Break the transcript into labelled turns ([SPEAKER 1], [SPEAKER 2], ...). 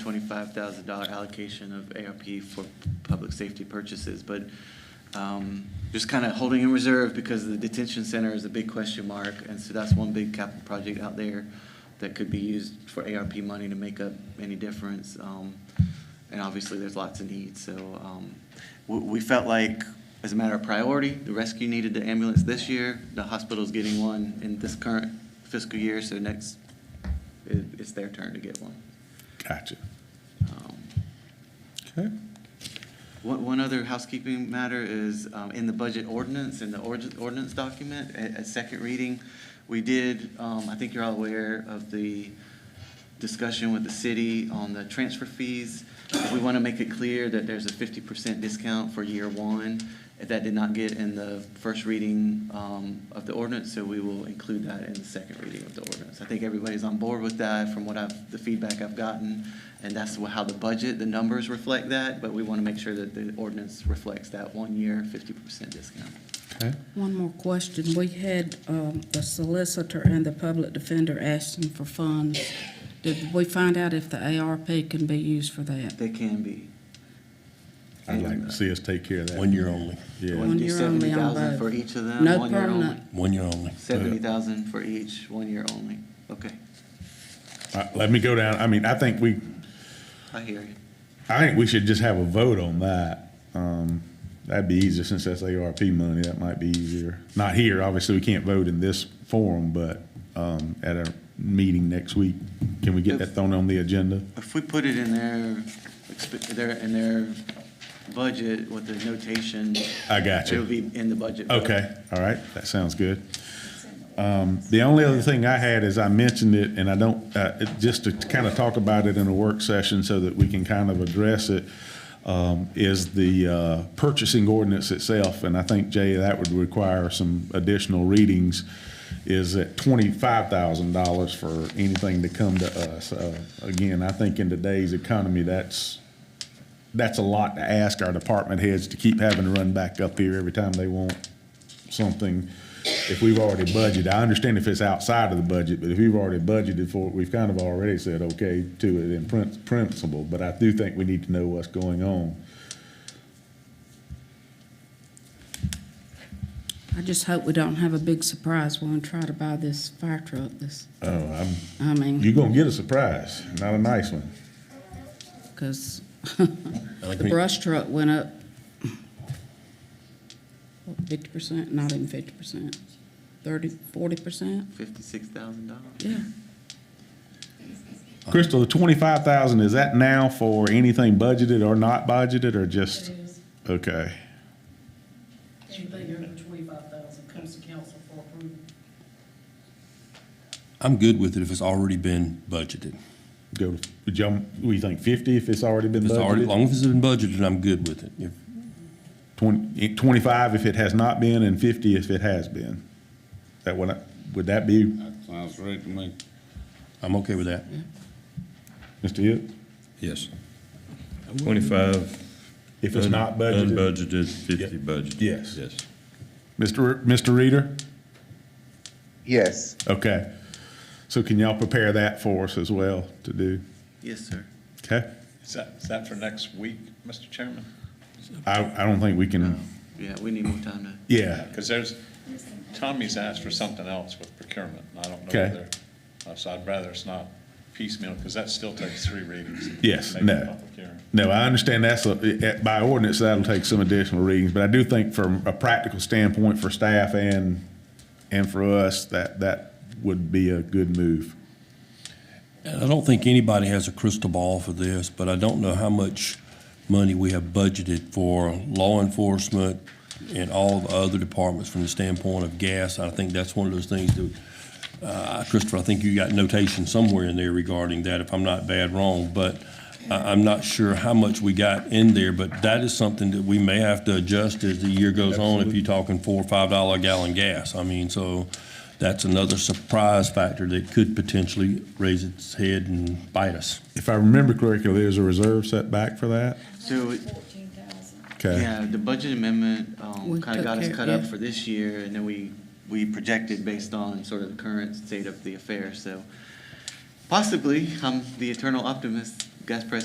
[SPEAKER 1] twenty-five thousand dollar allocation of ARP for public safety purchases, but um, just kind of holding in reserve because the detention center is a big question mark, and so that's one big capital project out there that could be used for ARP money to make up any difference. Um, And obviously, there's lots of needs, so um, we, we felt like, as a matter of priority, the rescue needed the ambulance this year, the hospital's getting one in this current fiscal year, so next, it, it's their turn to get one.
[SPEAKER 2] Gotcha.
[SPEAKER 1] Um,
[SPEAKER 2] Okay.
[SPEAKER 1] One, one other housekeeping matter is, um, in the budget ordinance, in the orgi- ordinance document, at, at second reading, we did, um, I think you're all aware of the discussion with the city on the transfer fees. We want to make it clear that there's a fifty percent discount for year one. That did not get in the first reading, um, of the ordinance, so we will include that in the second reading of the ordinance. I think everybody's on board with that from what I've, the feedback I've gotten. And that's wha- how the budget, the numbers reflect that, but we want to make sure that the ordinance reflects that one-year fifty percent discount.
[SPEAKER 2] Okay.
[SPEAKER 3] One more question. We had um, the solicitor and the public defender asking for funds. Did we find out if the ARP can be used for that?
[SPEAKER 1] They can be.
[SPEAKER 2] I'd like to see us take care of that.
[SPEAKER 4] One year only,
[SPEAKER 1] We
[SPEAKER 2] Yeah.
[SPEAKER 1] wanna do
[SPEAKER 3] One year only on
[SPEAKER 1] 70,000
[SPEAKER 3] both.
[SPEAKER 1] For each of them?
[SPEAKER 3] No
[SPEAKER 1] one year only.
[SPEAKER 3] permanent.
[SPEAKER 4] one year only.
[SPEAKER 1] Seventy thousand for each, one year only. Okay,
[SPEAKER 2] Uh, Let me go down. I mean, I think we,
[SPEAKER 1] I hear you.
[SPEAKER 2] I think we should just have a vote on that. Um, that'd be easier since that's ARP money. That might be easier. Not here, obviously, we can't vote in this forum, but, um, at a meeting next week, can we get that thrown on the agenda?
[SPEAKER 1] If we put it in their, expe- their, in their budget with the notation.
[SPEAKER 2] I got you.
[SPEAKER 1] It'll be in the budget.
[SPEAKER 2] Okay, all right, that sounds good. Um, The only other thing I had is I mentioned it, and I don't, uh, it- just to kind of talk about it in a work session so that we can kind of address it, um, is the uh, purchasing ordinance itself, and I think, Jay, that would require some additional readings, is at twenty-five thousand dollars for anything to come to us. Uh, Again, I think in today's economy, that's, that's a lot to ask our department heads to keep having to run back up here every time they want something. If we've already budgeted, I understand if it's outside of the budget, but if we've already budgeted for it, we've kind of already said okay to it in prin- principle. But I do think we need to know what's going on.
[SPEAKER 3] I just hope we don't have a big surprise when we try to buy this fire truck this,
[SPEAKER 2] Oh, I'm,
[SPEAKER 3] I mean,
[SPEAKER 2] you're gonna get a surprise, not a nice one.
[SPEAKER 3] because
[SPEAKER 4] Like
[SPEAKER 3] the
[SPEAKER 4] me-
[SPEAKER 3] brush truck went up fifty percent, not even fifty percent, thirty, forty percent?
[SPEAKER 1] Fifty-six thousand dollars.
[SPEAKER 3] Yeah.
[SPEAKER 2] Crystal, the twenty-five thousand, is that now for anything budgeted or not budgeted or just?
[SPEAKER 5] It is.
[SPEAKER 2] Okay,
[SPEAKER 5] Anything under twenty-five thousand comes to council for approval.
[SPEAKER 4] I'm good with it if it's already been budgeted.
[SPEAKER 2] go, to- would y'all, what do you think, fifty if it's already been
[SPEAKER 4] If it's already, as
[SPEAKER 2] budgeted?
[SPEAKER 4] long as it's been budgeted, I'm good with it. If-
[SPEAKER 2] Twenty, twenty-five if it has not been and fifty if it has been. That would, would that be,
[SPEAKER 6] That sounds right to me.
[SPEAKER 4] I'm okay with that.
[SPEAKER 2] Mm-hmm. Mr. Yip?
[SPEAKER 7] Yes. Twenty-five.
[SPEAKER 2] If it's not budgeted.
[SPEAKER 7] Unbudgeted, fifty budgeted.
[SPEAKER 2] Yes.
[SPEAKER 7] Yes.
[SPEAKER 2] Mr. Re- Mr. Reader?
[SPEAKER 8] Yes,
[SPEAKER 2] Okay. So can y'all prepare that for us as well to do?
[SPEAKER 1] Yes, sir.
[SPEAKER 2] Okay?
[SPEAKER 9] Is that, is that for next week, Mr. Chairman?
[SPEAKER 2] I, I don't think we can,
[SPEAKER 1] Yeah, we need more time to,
[SPEAKER 2] yeah,
[SPEAKER 9] Because there's, Tommy's asked for something else with procurement, and I don't know
[SPEAKER 2] Okay.
[SPEAKER 9] whether, uh, so I'd rather it's not piecemeal, because that still takes three readings. to
[SPEAKER 2] Yes,
[SPEAKER 9] make a
[SPEAKER 2] no.
[SPEAKER 9] public hearing.
[SPEAKER 2] No, I understand that's, a- by ordinance, that'll take some additional readings, but I do think from a practical standpoint for staff and, and for us, that, that would be a good move.
[SPEAKER 4] And I don't think anybody has a crystal ball for this, but I don't know how much money we have budgeted for law enforcement and all the other departments from the standpoint of gas. I think that's one of those things that, uh, Christopher, I think you got notation somewhere in there regarding that, if I'm not bad wrong. But I, I'm not sure how much we got in there, but that is something that we may have to adjust as the year goes on if you're talking four or five dollar a gallon gas. I mean, so that's another surprise factor that could potentially raise its head and bite us.
[SPEAKER 2] If I remember correctly, there's a reserve setback for that?
[SPEAKER 1] so,
[SPEAKER 5] Fourteen thousand.
[SPEAKER 2] Okay,
[SPEAKER 1] yeah, the budget amendment, um,
[SPEAKER 3] We
[SPEAKER 1] kinda
[SPEAKER 3] took
[SPEAKER 1] got us
[SPEAKER 3] care-
[SPEAKER 1] cut up
[SPEAKER 3] yeah.
[SPEAKER 1] for this year, and then we, we projected based on sort of the current state of the affair, so. Possibly, I'm the eternal optimist, Vice President